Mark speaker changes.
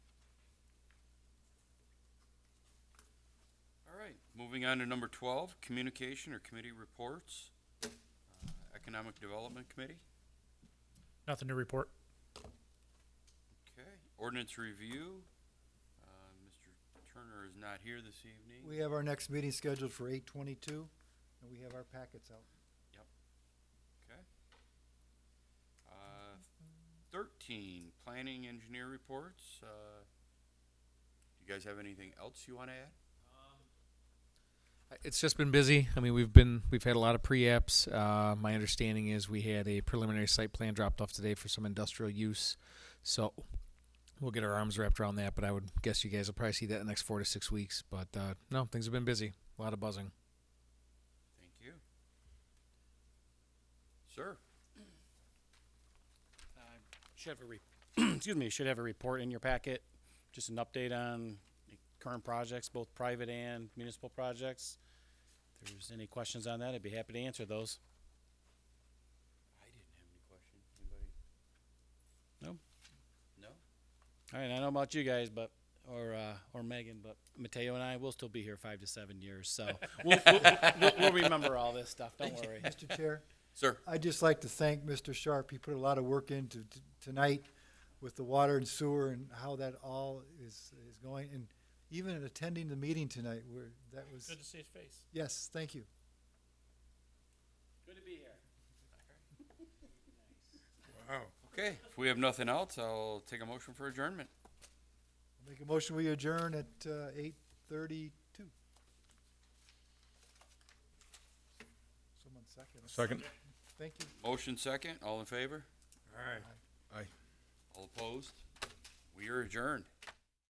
Speaker 1: Moving on to number twelve, communication or committee reports. Uh, Economic Development Committee,
Speaker 2: Nothing to report.
Speaker 1: okay. Ordinance Review, uh, Mr. Turner is not here this evening.
Speaker 3: We have our next meeting scheduled for eight twenty-two, and we have our packets out.
Speaker 1: Okay. Uh, Thirteen, planning engineer reports. Uh, Do you guys have anything else you want to add?
Speaker 4: It's just been busy. I mean, we've been we've had a lot of pre-apps. Uh, my understanding is we had a preliminary site plan dropped off today for some industrial use, so we'll get our arms wrapped around that. But I would guess you guys will probably see that in the next four to six weeks. But uh, no, things have been busy. A lot of buzzing.
Speaker 1: Thank you. Sir,
Speaker 5: Should have a re- excuse me, should have a report in your packet, just an update on the current projects, both private and municipal projects. If there's any questions on that, I'd be happy to answer those.
Speaker 1: I didn't have any questions. Anybody?
Speaker 5: No.
Speaker 1: No?
Speaker 5: All right, I don't know about you guys, but or uh, or Megan, but Mateo and I will still be here five to seven years, so we'll, we'll, we'll, we'll remember all this stuff. Don't worry.
Speaker 3: Mr. Chair,
Speaker 1: Sir,
Speaker 3: I'd just like to thank Mr. Sharp. He put a lot of work into t- tonight with the water and sewer and how that all is, is going, and even in attending the meeting tonight, where that was,
Speaker 2: see his face.
Speaker 3: yes, thank you.
Speaker 5: Good to be here.
Speaker 1: okay, if we have nothing else, I'll take a motion for adjournment.
Speaker 3: Make a motion, we adjourn at, uh, eight thirty-two. Someone second. us.
Speaker 6: Second.
Speaker 3: Thank you.
Speaker 1: Motion second, all in favor?
Speaker 6: All right.
Speaker 1: All opposed? We are adjourned.